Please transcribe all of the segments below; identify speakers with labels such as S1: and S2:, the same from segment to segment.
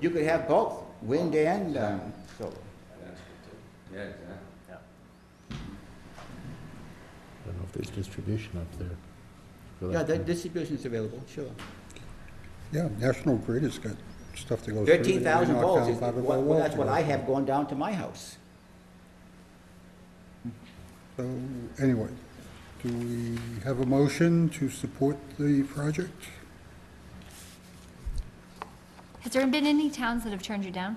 S1: you could have both, wind and um, solar.
S2: Yeah, exactly.
S3: I don't know if there's distribution up there. for
S1: Yeah,
S3: that
S1: the
S3: thing.
S1: distribution's available, sure.
S4: Yeah, National Grid has got stuff that goes through.
S1: Thirteen thousand
S4: They knock
S1: volts
S4: down
S1: is,
S4: part of
S1: well,
S4: the
S1: that's what
S4: wall
S1: I
S4: to go.
S1: have going down to my house.
S4: So, anyway, do we have a motion to support the project?
S5: Has there been any towns that have turned you down?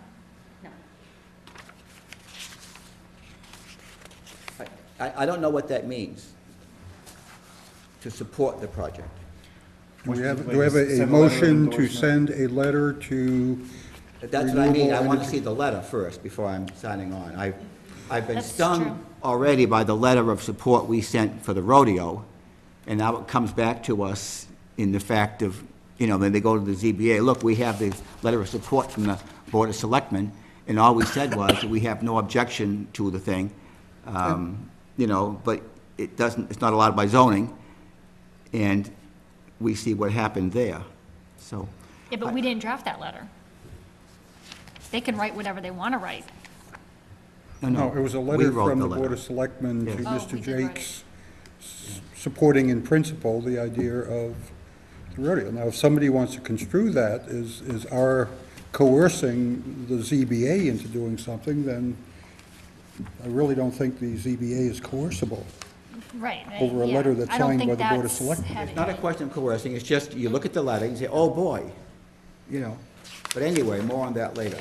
S1: I- I, I don't know what that means, to support the project.
S4: Do we
S6: Motion
S4: have,
S6: to
S4: do we have a- a
S6: send a letter of
S4: motion to
S6: endorsement.
S4: send a letter to,
S1: That's what I mean, I
S4: Renewable
S1: want to
S4: energy.
S1: see the letter first before I'm signing on. I, I've been
S5: That's true.
S1: stung already by the letter of support we sent for the rodeo, and now it comes back to us in the fact of, you know, then they go to the ZBA, look, we have the letter of support from the Board of Selectmen, and all we said was that we have no objection to the thing, um, you know, but it doesn't, it's not allowed by zoning, and we see what happened there, so.
S5: Yeah, but we didn't draft that letter. They can write whatever they want to write.
S4: no, it was a
S1: we
S4: letter
S1: wrote
S4: from the
S1: letter.
S4: Board of Selectmen to
S1: Yes.
S5: Oh, we
S4: Mr.
S5: did write it.
S4: Jakes, s- supporting in principle the idea of the rodeo. Now, if somebody wants to construe that as, as our coercing the ZBA into doing something, then I really don't think the ZBA is coercible.
S5: Right. I-
S4: Over a
S5: yeah.
S4: letter that's
S5: I don't
S4: signed
S5: think
S4: by the Board of
S5: that's
S4: Selectmen.
S5: had
S1: It's not a
S5: any-
S1: question of coercing, it's just you look at the letter and say, oh, boy, you know. But anyway, more on that later.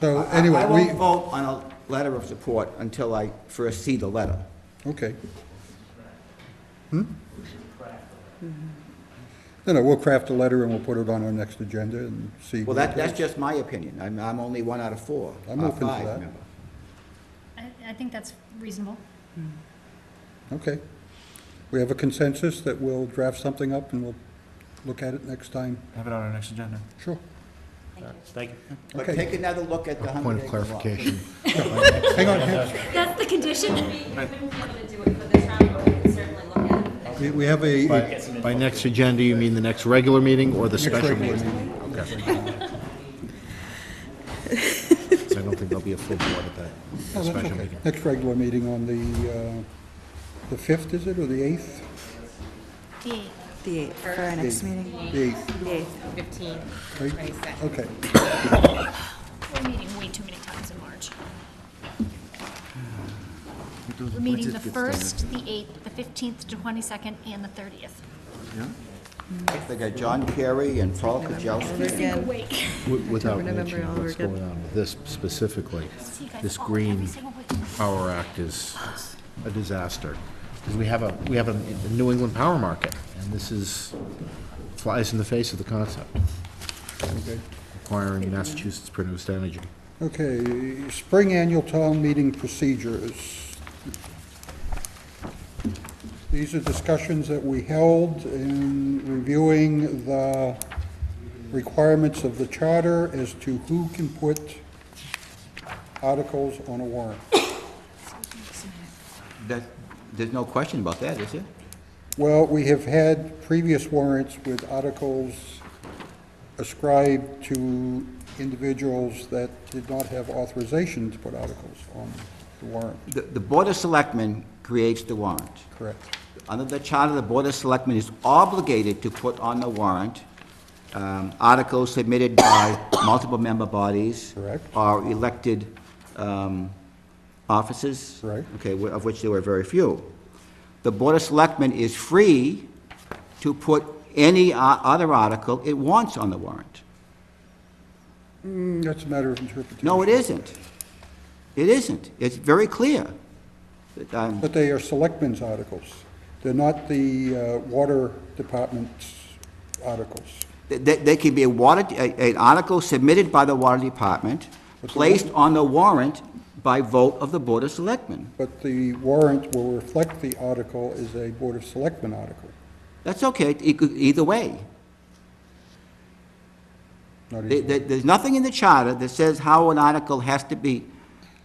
S4: So
S1: I-
S4: anyway,
S1: I won't
S4: we,
S1: vote on a letter of support until I first see the letter.
S4: okay. Hmm? No, no, we'll craft a letter and we'll put it on our next agenda and see.
S1: Well,
S4: what
S1: that,
S4: it
S1: that's
S4: is.
S1: just my opinion. I'm, I'm only one out of four.
S4: I'm
S1: or
S4: open to
S1: five,
S4: that.
S1: remember.
S5: I, I think that's reasonable.
S4: Okay. We have a consensus that we'll draft something up and we'll look at it next time.
S6: Have it on our next agenda.
S4: Sure.
S6: Thank you.
S1: But
S4: Okay.
S1: take another look at the hundred
S3: Point of
S1: acre lot.
S3: clarification,
S4: Hang on, hang
S5: That's the condition.
S7: We we wouldn't be able to do it for this round, but we could certainly look at it.
S4: on. We- We have a, a-
S3: by, by next agenda, you mean the next regular meeting or the special
S4: regular
S3: meeting? Okay. 'Cause I don't think there'll be a full board at that
S4: no, that's
S3: special
S4: okay.
S3: meeting.
S4: Next regular meeting on the, uh, the 5th, is it, or the 8th?
S5: The-
S8: The 8th, for our next meeting.
S4: The 8th,
S8: The 8th.
S7: Fifteen,
S4: right? Okay.
S5: We're meeting way too many times in March. We're meeting the first, the eighth, the fifteenth, the twenty-second, and the thirtieth.
S1: They got John Kerry and Paul Kajalski.
S8: Again,
S5: Wake.
S3: Wi- Without
S8: November
S3: mentioning
S8: all over
S3: what's
S8: again.
S3: going on with this specifically,
S5: See you guys
S3: this
S5: all every
S3: green
S5: single week.
S3: Power Act is a disaster. Because we have a, we have a a New England power market, and this is, flies in the face of the concept,
S4: Okay.
S3: requiring Massachusetts-produced energy.
S4: Okay, spring annual town meeting procedures. These are discussions that we held in reviewing the requirements of the charter as to who can put articles on a warrant.
S1: That, there's no question about that, is there?
S4: Well, we have had previous warrants with articles ascribed to individuals that did not have authorization to put articles on the warrant,
S1: The, the Board of Selectmen creates the warrant.
S4: correct?
S1: Under the charter, the Board of Selectmen is obligated to put on the warrant um, articles submitted by multiple member bodies.
S4: Correct.
S1: Or elected um, officers.
S4: Right.
S1: Okay, wh- of which there were very few. The Board of Selectmen is free to put any o- other article it wants on the warrant.
S4: Mm, That's a matter of interpretation.
S1: No, it isn't. It isn't. It's very clear. But, um,
S4: But they are selectmen's articles. They're not the uh, water department's articles.
S1: They, they can be a water, a- an article submitted by the water department, placed on the warrant by vote of the Board of Selectmen.
S4: But the warrant will reflect the article as a Board of Selectmen article,
S1: That's okay, it could- either way.
S4: not
S1: There-
S4: as,
S1: there- There's nothing in the charter that says how an article has to be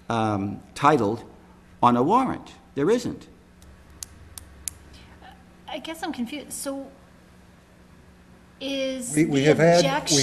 S1: um, titled on a warrant. There isn't.
S5: I guess I'm confused, so is
S4: We-
S5: the
S4: we have had- we
S5: objection?